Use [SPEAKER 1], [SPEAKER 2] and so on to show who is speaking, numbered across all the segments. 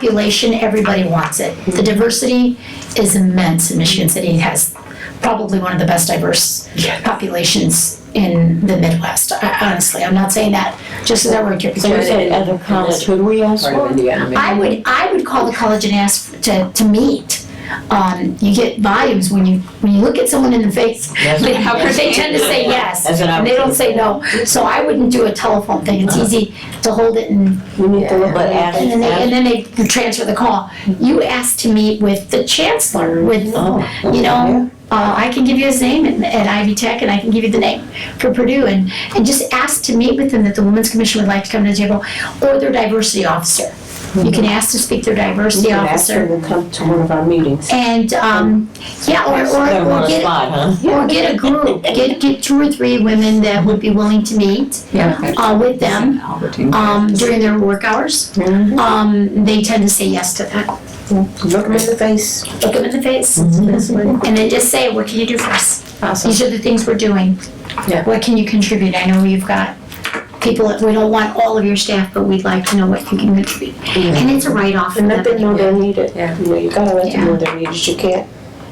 [SPEAKER 1] population, everybody wants it. The diversity is immense in Michigan City. It has probably one of the best diverse populations in the Midwest. I- Honestly, I'm not saying that just as I work here.
[SPEAKER 2] So you
[SPEAKER 1] because
[SPEAKER 2] said other college, who do we ask
[SPEAKER 3] part of
[SPEAKER 2] for?
[SPEAKER 3] Indiana. maybe.
[SPEAKER 1] I would, I would call the college and ask to, to meet. Um, you get volumes when you, when you look at someone in the face,
[SPEAKER 3] That's-
[SPEAKER 1] they they tend to say yes.
[SPEAKER 3] That's what Uh-huh. I
[SPEAKER 1] And
[SPEAKER 3] would
[SPEAKER 1] they don't
[SPEAKER 3] think.
[SPEAKER 1] say no. So I wouldn't do a telephone thing. It's easy to hold it and
[SPEAKER 2] We need to look
[SPEAKER 3] But
[SPEAKER 2] at
[SPEAKER 1] And then they, and
[SPEAKER 2] that.
[SPEAKER 1] then they transfer the call. You asked to meet with the chancellor, with, you know, uh, I can give you his name at, at Ivy Tech and I can give you the name for Purdue and, and just ask to meet with them that the Women's Commission would like to come to the table or their diversity officer. You can ask to speak to their diversity
[SPEAKER 2] Ask them
[SPEAKER 1] officer
[SPEAKER 2] to come to one of our meetings.
[SPEAKER 1] and, um, yeah,
[SPEAKER 3] They're
[SPEAKER 1] or, or,
[SPEAKER 3] on
[SPEAKER 1] or
[SPEAKER 3] the
[SPEAKER 1] get,
[SPEAKER 3] spot, huh?
[SPEAKER 1] or get a group, get, get two or three women that would be willing to meet, uh, with them, um, during their work hours.
[SPEAKER 2] Mhm.
[SPEAKER 1] Um, they tend to say yes to that.
[SPEAKER 2] Look them in the face.
[SPEAKER 1] Look them in the face and then just say, what can you do for us?
[SPEAKER 2] Mm-hmm. Awesome.
[SPEAKER 1] These are the things we're doing.
[SPEAKER 2] Yeah.
[SPEAKER 1] What can you contribute? I know you've got people, that we don't want all of your staff, but we'd like to know what you can contribute. And it's a write-off. for
[SPEAKER 2] Mm-hmm. And let them
[SPEAKER 1] them.
[SPEAKER 2] know they need it. You know, you gotta let them know they need it. You can't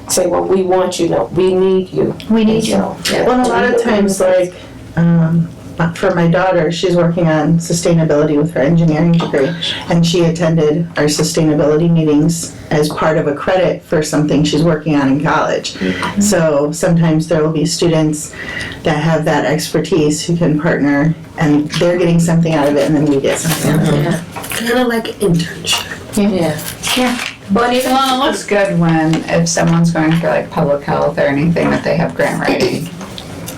[SPEAKER 2] say, well, we want you, no, we need you.
[SPEAKER 1] We need you.
[SPEAKER 4] Well, a lot of times, like, um, for my daughter, she's working on sustainability with her engineering degree, and she attended our sustainability meetings as part of a credit for something she's working on in college.
[SPEAKER 3] Mm-hmm.
[SPEAKER 4] So sometimes there will be students that have that expertise who can partner, and they're getting something out of it, and then we get something out of it.
[SPEAKER 3] Kind of like internship.
[SPEAKER 5] Yeah,
[SPEAKER 3] But even
[SPEAKER 5] well, it looks good when, if someone's going for like public health or anything, that they have grant writing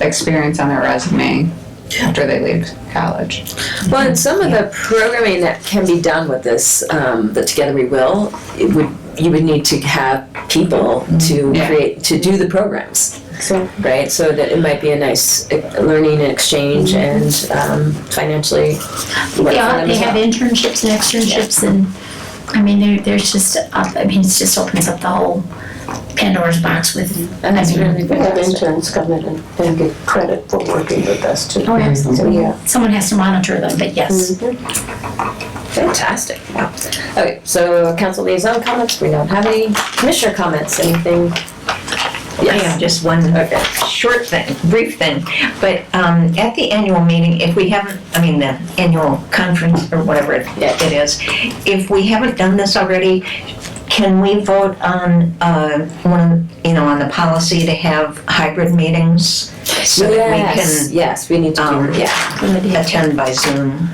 [SPEAKER 5] experience on their resume after they leave college.
[SPEAKER 6] Well, and some of the programming that can be done with this, um, the Together We Will, it would, you would need to have people to
[SPEAKER 5] Yeah.
[SPEAKER 6] create, to do the programs,
[SPEAKER 2] So,
[SPEAKER 6] right? So that it might be a nice uh, learning and exchange and, um, financially. work for
[SPEAKER 1] Yeah,
[SPEAKER 6] them
[SPEAKER 1] they
[SPEAKER 6] as
[SPEAKER 1] have
[SPEAKER 6] well.
[SPEAKER 1] internships and externships and, I mean, there, there's just, up- I mean, it just opens up the whole Pandora's box with, I
[SPEAKER 6] And it's really
[SPEAKER 1] mean,
[SPEAKER 2] we have
[SPEAKER 6] fantastic.
[SPEAKER 2] interns come in and- and get credit for working with us too.
[SPEAKER 1] Oh, absolutely.
[SPEAKER 2] So, yeah.
[SPEAKER 1] someone has to monitor them, but
[SPEAKER 2] Mm-hmm.
[SPEAKER 1] yes.
[SPEAKER 6] Fantastic. Wow. Okay, so council liaison comments, we don't have any. Commissioner comments, anything?
[SPEAKER 7] Hang on, just one
[SPEAKER 6] Okay.
[SPEAKER 7] short thing, brief thing. But um, at the annual meeting, if we haven't, I mean, the annual conference or whatever it
[SPEAKER 6] Yeah.
[SPEAKER 7] it is, if we haven't done this already, can we vote on, uh, one, you know, on the policy to have hybrid meetings? So
[SPEAKER 6] Yes,
[SPEAKER 7] that
[SPEAKER 6] yes, we need to
[SPEAKER 7] Um,
[SPEAKER 6] do, yeah.
[SPEAKER 7] we can attend by Zoom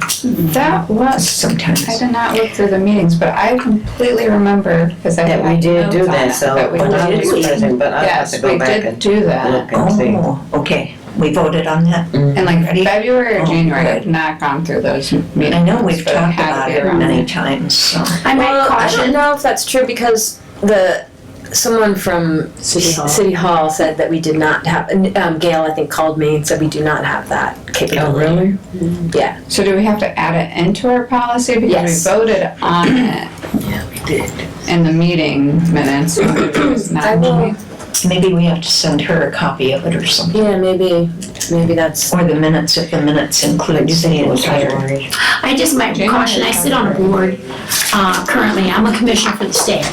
[SPEAKER 5] That was,
[SPEAKER 7] sometimes.
[SPEAKER 5] I did not look through the meetings, but I completely remember, because I
[SPEAKER 3] That we
[SPEAKER 5] had
[SPEAKER 3] did
[SPEAKER 5] notes
[SPEAKER 3] do
[SPEAKER 5] on
[SPEAKER 3] that,
[SPEAKER 5] it,
[SPEAKER 3] so
[SPEAKER 5] that we
[SPEAKER 3] when I
[SPEAKER 5] did
[SPEAKER 3] was
[SPEAKER 5] do-
[SPEAKER 3] president, but I have to
[SPEAKER 5] Yes,
[SPEAKER 3] go
[SPEAKER 5] we
[SPEAKER 3] back
[SPEAKER 5] did
[SPEAKER 3] and
[SPEAKER 5] do that.
[SPEAKER 3] look and see.
[SPEAKER 7] Oh, okay. We voted on that?
[SPEAKER 5] In like
[SPEAKER 7] Ready?
[SPEAKER 5] February or
[SPEAKER 7] Oh,
[SPEAKER 5] January,
[SPEAKER 7] good.
[SPEAKER 5] I've not gone through those meetings.
[SPEAKER 7] I know we've
[SPEAKER 5] but Mm-hmm. I
[SPEAKER 7] talked
[SPEAKER 5] had to
[SPEAKER 7] about
[SPEAKER 5] be
[SPEAKER 7] it
[SPEAKER 5] around
[SPEAKER 7] many times, so.
[SPEAKER 1] I might
[SPEAKER 6] Well, I don't
[SPEAKER 1] caution,
[SPEAKER 6] know if that's true because the, someone from
[SPEAKER 2] City Hall.
[SPEAKER 6] City Hall said that we did not have, and, um, Gail, I think, called me and said we do not have that capability.
[SPEAKER 3] really?
[SPEAKER 5] So do we have to add it into our policy? Because
[SPEAKER 6] Yes.
[SPEAKER 5] we voted on it in the meeting minutes. but it was not
[SPEAKER 6] I will,
[SPEAKER 7] Maybe we have to send her a copy of it or something.
[SPEAKER 6] yeah, maybe, maybe that's,
[SPEAKER 7] Or the minutes, if the minutes includes the entire.
[SPEAKER 1] I just might
[SPEAKER 5] January
[SPEAKER 1] caution, I sit on a board, uh, currently, I'm a commissioner for the state.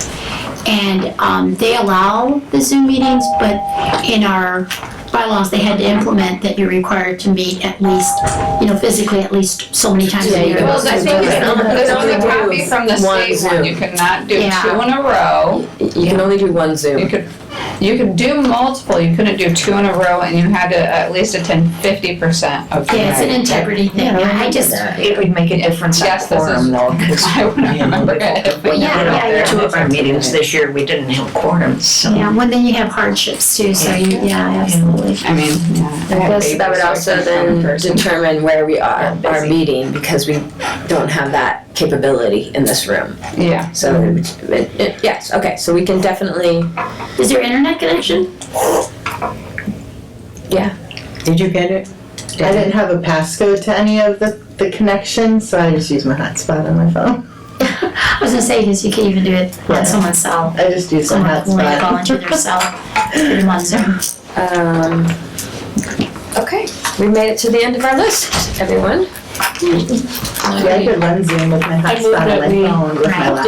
[SPEAKER 1] And, um, they allow the Zoom meetings, but in our bylaws, they had to implement that you're required to meet at least, you know, physically at least so many times
[SPEAKER 6] Yeah,
[SPEAKER 1] a
[SPEAKER 6] you
[SPEAKER 1] year.
[SPEAKER 6] don't
[SPEAKER 5] Well, I think it's
[SPEAKER 6] Yeah.
[SPEAKER 5] it's only a copy from the
[SPEAKER 6] One
[SPEAKER 5] state one,
[SPEAKER 6] Zoom.
[SPEAKER 5] you could not do two
[SPEAKER 1] Yeah.
[SPEAKER 5] in a row.
[SPEAKER 6] you can only do one
[SPEAKER 5] You
[SPEAKER 6] Zoom.
[SPEAKER 5] could, you could do multiple, you couldn't do two in a row and you had to at least attend fifty percent of. the
[SPEAKER 1] Yeah, it's an
[SPEAKER 5] meeting.
[SPEAKER 1] integrity thing, I just,
[SPEAKER 7] It would make a difference on
[SPEAKER 5] Yes, this is-
[SPEAKER 7] quorum though, because.
[SPEAKER 5] I wouldn't remember it. if we
[SPEAKER 1] Well, yeah,
[SPEAKER 5] had
[SPEAKER 1] yeah,
[SPEAKER 5] it there.
[SPEAKER 7] Two of our meetings this year, we didn't have quorums, so.
[SPEAKER 1] yeah, well, then you have hardships too, so you, yeah, absolutely.
[SPEAKER 5] I mean, yeah.
[SPEAKER 6] I
[SPEAKER 5] had
[SPEAKER 6] guess that would
[SPEAKER 5] babies, so
[SPEAKER 6] also
[SPEAKER 5] I couldn't
[SPEAKER 6] then
[SPEAKER 5] remember.
[SPEAKER 6] determine where we are,
[SPEAKER 5] Yeah,
[SPEAKER 6] our
[SPEAKER 5] busy.
[SPEAKER 6] meeting, because we don't have that capability in this room.
[SPEAKER 5] Yeah,
[SPEAKER 6] So, it- it- yes, okay, so we can definitely,
[SPEAKER 1] Is there internet connection?
[SPEAKER 3] Did you get it?
[SPEAKER 4] I didn't have a passcode to any of the, the connections, so I just use my hotspot on my phone.
[SPEAKER 1] I was gonna say, cause you can even do it
[SPEAKER 4] Yeah.
[SPEAKER 1] on someone's cell,
[SPEAKER 4] I just use my
[SPEAKER 1] someone will call
[SPEAKER 4] hotspot.
[SPEAKER 1] into their cell, put them on Zoom.
[SPEAKER 6] um, okay, we made it to the end of our list, everyone.
[SPEAKER 4] Yeah, I could run Zoom with my
[SPEAKER 6] I moved
[SPEAKER 4] hotspot
[SPEAKER 6] that
[SPEAKER 4] on my
[SPEAKER 6] we-
[SPEAKER 4] phone with my
[SPEAKER 1] Right.
[SPEAKER 4] laptop.